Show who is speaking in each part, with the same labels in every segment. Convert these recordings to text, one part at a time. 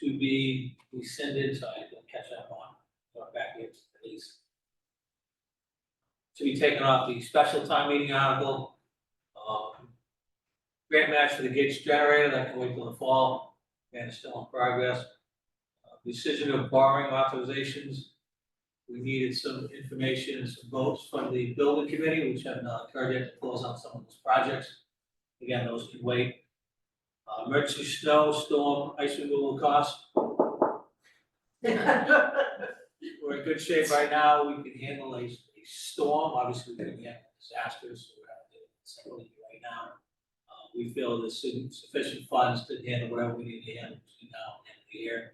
Speaker 1: to be rescinded, so I can catch up on, or back here to the lease. To be taken off the special time meeting article, um, grant match for the Gates generator, that can wait till the fall, and it's still in progress. Uh, Decision of borrowing authorizations, we needed some information, and some votes from the building committee, which have not occurred yet to close on some of those projects. Again, those can wait. Uh, emergency snow, storm, ice removal costs, we're in good shape right now, we can handle a, a storm, obviously, we can handle disasters, so we're not doing something right now. Uh, we feel there's su- sufficient funds to handle whatever we need to handle between now and the end of the year.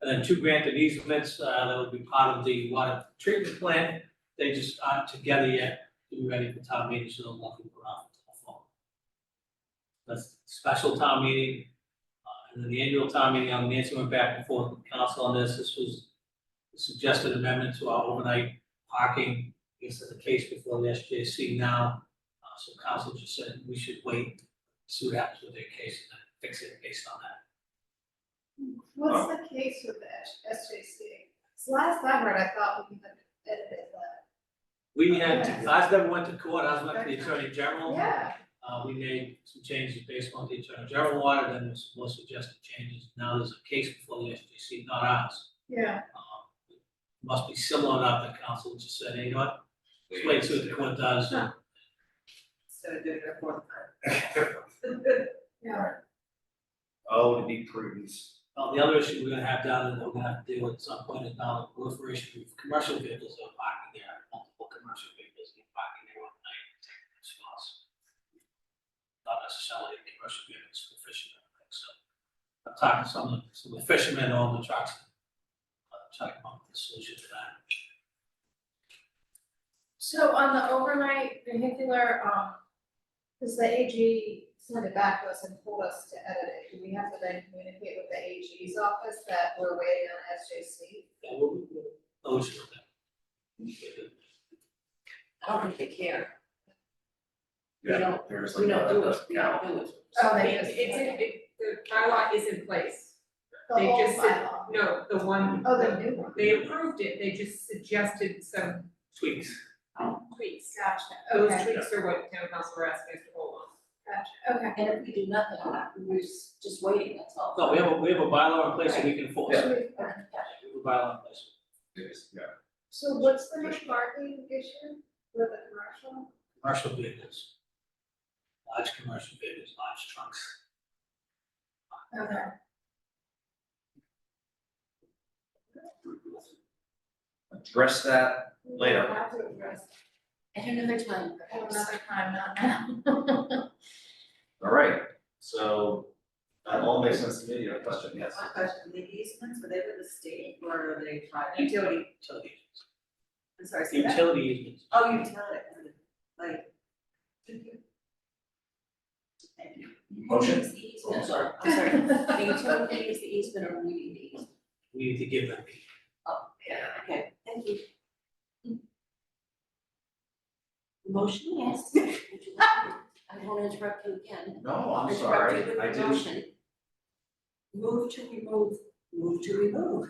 Speaker 1: And then two granted easements, uh, that would be part of the water treatment plant, they just aren't together yet, to be ready for town meeting, so they'll walk it around until the fall. That's special town meeting, uh, and then the annual town meeting, I'm Nancy went back and forth with council on this, this was suggested amendment to our overnight parking, I guess there's a case before the SJC now. Uh, so council just said we should wait, see what happens with their case and then fix it based on that.
Speaker 2: What's the case with the S- SJC? 'Cause last I heard, I thought we could edit it, but,
Speaker 1: We had,
Speaker 2: Okay.
Speaker 1: last time we went to court, I was with the attorney general.
Speaker 2: yeah,
Speaker 1: Uh, we made some changes based on the attorney general order, then there's more suggested changes. Now there's a case before the SJC, not ours.
Speaker 2: yeah.
Speaker 1: Um, Must be similar enough that council just said, hey, you know what, let's wait, see what the court does.
Speaker 2: Huh.
Speaker 3: Instead of doing it a fourth time.
Speaker 2: Yeah.
Speaker 4: Oh, to be prudent.
Speaker 1: Well, the other issue we're gonna have down and we're gonna have to deal with at some point is now the proliferation of commercial vehicles that are parking there, multiple commercial vehicles that are parking there one night and taking up spots. Not necessarily the commercial vehicles for fishermen, I think, so. I'm talking to some of, the- some of the fishermen on the trucks. I'm talking about the solution to that.
Speaker 2: So on the overnight vehicular, um, does the AG send it back to us and told us to edit it? Do we have to then communicate with the AG's office that we're waiting on SJC?
Speaker 1: Yeah, we'll, we'll, we'll deal with that.
Speaker 3: I don't think they care. We
Speaker 4: Yeah,
Speaker 3: don't-
Speaker 4: there's
Speaker 3: We
Speaker 4: like
Speaker 3: don't
Speaker 4: a-
Speaker 3: do
Speaker 4: a
Speaker 3: it, we don't do it.
Speaker 2: Oh, they
Speaker 5: It-
Speaker 2: just.
Speaker 5: It's, in- it, the bylaw is in place,
Speaker 2: The
Speaker 5: they
Speaker 2: whole
Speaker 5: just said-
Speaker 2: bylaw.
Speaker 5: no, the one,
Speaker 2: Oh, the new one.
Speaker 5: they approved it, they just suggested some
Speaker 1: Tweaks.
Speaker 5: tweaks.
Speaker 2: Gotcha,
Speaker 5: Those
Speaker 2: okay,
Speaker 5: tweaks are what town council were asking us to hold on.
Speaker 2: gotcha, okay.
Speaker 3: And if we do nothing, we're just, just waiting, that's all.
Speaker 1: No, we have, a we have a bylaw in place that we can enforce.
Speaker 4: Yeah.
Speaker 1: We have a bylaw in place.
Speaker 4: There's, yeah.
Speaker 2: So what's the new parking issue with the commercial?
Speaker 1: commercial vehicles. Large commercial vehicles, large trucks.
Speaker 2: Okay.
Speaker 4: Address that, Later.
Speaker 2: We'll have to address
Speaker 3: At another time,
Speaker 2: that at
Speaker 3: perhaps.
Speaker 2: another time, not now.
Speaker 4: all right, so that all makes sense to me, your question, yes.
Speaker 6: One question, the easements, were they with the state or were they private? Utility.
Speaker 1: Utility,
Speaker 6: I'm sorry, say that.
Speaker 1: utility easements.
Speaker 6: Oh, utility, like. Thank you.
Speaker 4: Motion,
Speaker 3: It's the easement.
Speaker 6: Oh, sorry.
Speaker 3: I'm sorry, the utility is the easement or we need the easement.
Speaker 1: We need to give them.
Speaker 6: Okay, thank you.
Speaker 3: Motion, yes. Would you like to- I won't interrupt you again.
Speaker 4: no, I'm
Speaker 3: Interrupt
Speaker 4: sorry,
Speaker 3: you with
Speaker 4: I
Speaker 3: the
Speaker 4: didn't,
Speaker 3: motion. Move to remove, move to remove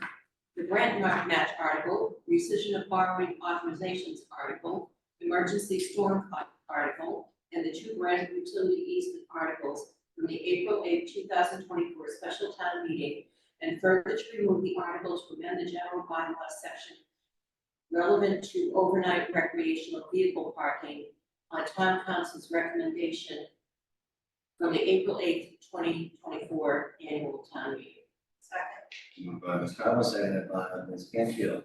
Speaker 3: the grant ma- match article, rescission of borrowing authorizations article, emergency storm fund article, and the two grant utility easement articles from the April eighth, two thousand twenty-four special town meeting, and further to remove the articles to amend the general bylaw section relevant to overnight recreational vehicle parking on town council's recommendation from the April eighth, twenty twenty-four annual town meeting.
Speaker 4: moved by Ms. Conlon, seconded by uh, Ms. Canfield.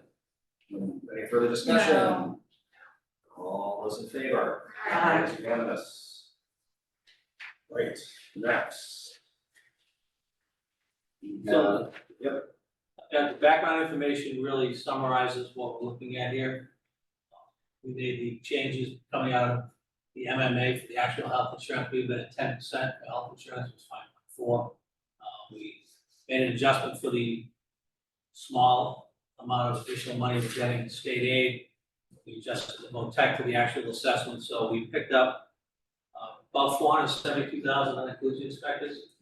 Speaker 4: Any further discussion? All those in favor?
Speaker 3: Aye.
Speaker 4: It's unanimous. Right, next.
Speaker 1: So.
Speaker 4: yep.
Speaker 1: Yeah, the background information really summarizes what we're looking at here. We made the changes coming out of the MMA for the actual health insurance, we've been at ten percent, the health insurance was five point four. Uh, we made an adjustment for the small amount of additional money we're getting in state aid. We adjusted the MOTEC for the actual assessment, so we picked up uh, about four hundred seventy-two thousand on inclusion inspectors.